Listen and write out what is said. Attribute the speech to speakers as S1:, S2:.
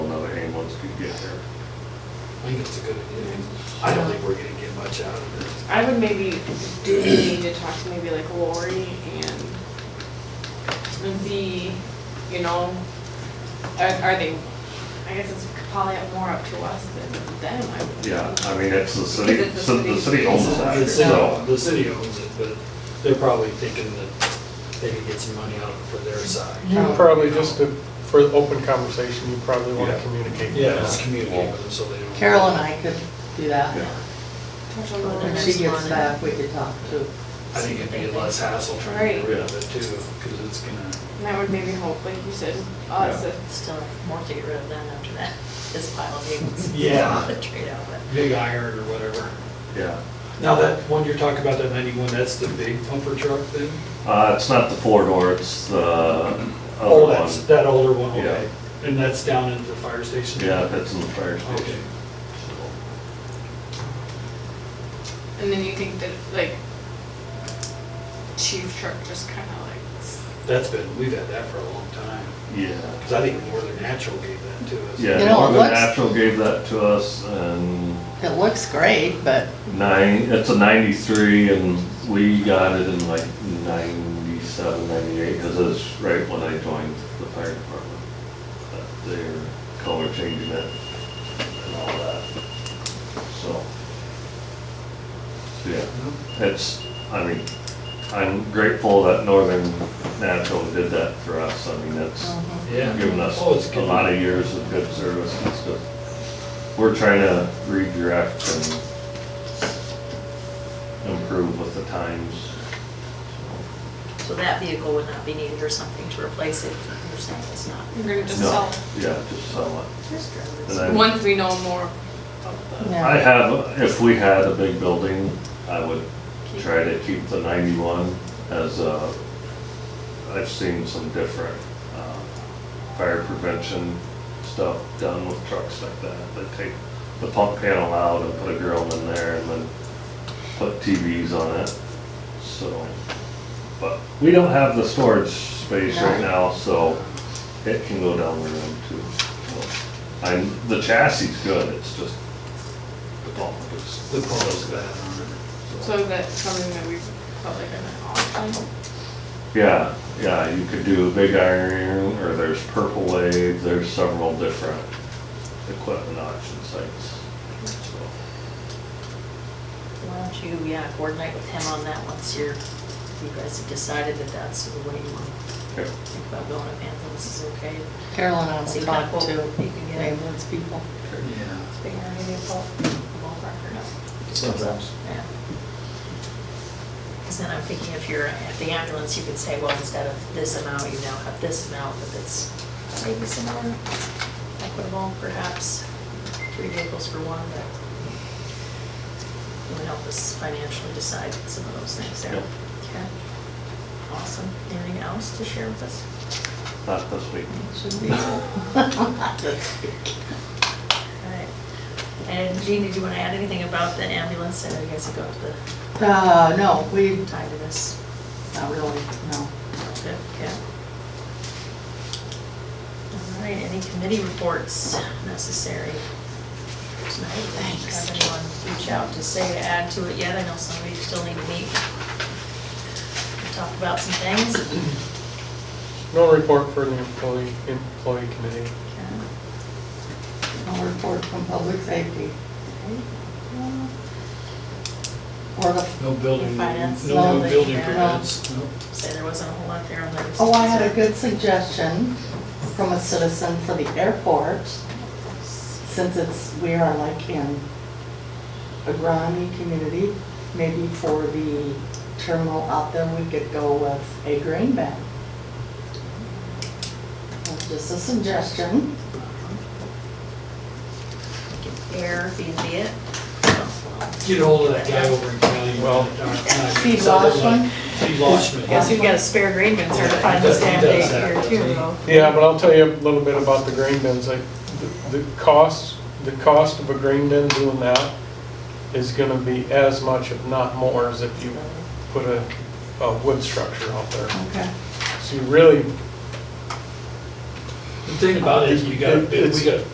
S1: think it's a good idea. I don't think we're gonna get much out of it.
S2: I would maybe, do we need to talk to maybe like Lori and, and see, you know, are, are they, I guess it's probably more up to us than them, I would.
S3: Yeah, I mean, it's the city,
S2: Because it's the
S3: the
S2: city.
S3: city owns
S1: The
S3: that,
S1: city,
S3: so.
S1: the city owns it, but they're probably thinking that they could get some money out of it for their side.
S4: You probably, just to, for open conversation, you probably want to
S3: Yeah.
S4: communicate.
S1: Yeah, just communicate with them so they don't.
S5: Carol and I could do that.
S3: yeah.
S2: Touch on Lori
S5: When
S2: next
S5: she gets
S2: month.
S5: back, we could talk too.
S1: I think it'd be less hassle trying to get rid of it too, because it's gonna,
S2: And that would maybe help, like you said, us,
S3: Yeah.
S6: Still more to get rid of than after that, this pile of tables.
S1: Yeah.
S6: The trade out, but.
S1: big iron or whatever.
S3: Yeah.
S1: Now, that one you're talking about, that ninety-one, that's the big pumper truck thing?
S3: Uh, it's not the four door, it's the other
S1: Oh, that's,
S3: one.
S1: that older one, okay. And that's down at the fire station?
S3: Yeah, that's in the fire
S1: Okay.
S3: station.
S2: and then you think that, like, chief truck just kinda like,
S1: That's been, we've had that for a long time,
S3: Yeah.
S1: because I think Northern Natural gave that to us.
S5: You
S3: Yeah,
S5: know, it
S3: Northern
S5: looks-
S3: Natural gave that to us and
S5: It looks great, but
S3: nine, it's a ninety-three and we got it in like 97, 98, because it's right when I joined the fire department. But They're color changing it and all that, so. Yeah. It's, I mean, I'm grateful that Northern Natural did that for us. I mean, that's
S1: Yeah.
S3: given us
S1: Oh, it's
S3: a
S1: good.
S3: lot of years of good service and stuff. We're trying to redirect and improve with the times.
S6: So that vehicle would not be needed or something to replace it, you're saying it's not.
S2: we're gonna just
S3: No,
S2: sell.
S3: Yeah, just sell it.
S6: Just drive it.
S3: And I-
S2: Once we know more of the,
S5: Yeah.
S3: I have, if we had a big building, I would try to keep the ninety-one as a, I've seen some different, uh, fire prevention stuff done with trucks like that. They take the pump panel out and put a grill in there and then put TVs on it, so. But we don't have the storage space right now, so it can go down the road too. So, I'm, the chassis is good, it's just the pump is.
S1: The pumper's bad on it.
S2: so is that something that we felt like an option?
S3: Yeah, yeah, you could do big iron, or there's purple wave, there's several different equipment auction sites. So,
S6: Why don't you, yeah, coordinate with him on that once you're, you guys have decided that that's the way you want to
S3: okay.
S6: think about going up Anthem's is okay.
S5: Carol and I
S6: See
S5: will
S6: what
S5: talk
S6: quote
S5: to
S6: you can get.
S5: ambulance people.
S1: Yeah.
S6: Figure out maybe a ball- ballpark or not.
S7: Sometimes.
S6: Yeah. Because then I'm thinking if you're at the ambulance, you could say, well, instead of this amount, you now have this amount, but it's maybe some more equitable perhaps, three vehicles for one, but it would help us financially decide some of those things there.
S3: Yep.
S6: Okay. Awesome. Anything else to share with us?
S3: Not this week.
S5: Should be.
S6: All right. And Jean, did you want to add anything about the ambulance? I know you guys have got the
S5: Uh, no, we,
S6: tie to this.
S5: not really, no.
S6: Good, good. All right, any committee reports necessary tonight? Thanks. Have anyone reach out to say to add to it yet? I know some of you still need to meet. and Talk about some things.
S4: No report for the employee, employee committee.
S6: Okay.
S5: No report from public safety or the,
S1: No building,
S6: Finance.
S1: no
S5: No,
S1: new building
S6: yeah.
S1: permits. No.
S6: Say there wasn't a whole lot there on those.
S5: oh, I had a good suggestion from a citizen for the airport. Since it's, we are like in a grimy community, maybe for the terminal out there, we could go with a grain bag. That's Just a suggestion.
S6: Airbnb it.
S1: Get hold of that guy over in County.
S4: Well-
S5: Steve Washburn?
S1: Steve Washburn.
S6: Guess we've got a spare green bin certified this damn day here too, though.
S4: Yeah, but I'll tell you a little bit about the grain bins. Like, the- the cost, the cost of a grain bin doing that is gonna be as much, if not more, as if you put a, a wood structure out there.
S5: Okay.
S4: So you really,
S1: The thing about it is, you got, we
S4: It's-
S1: got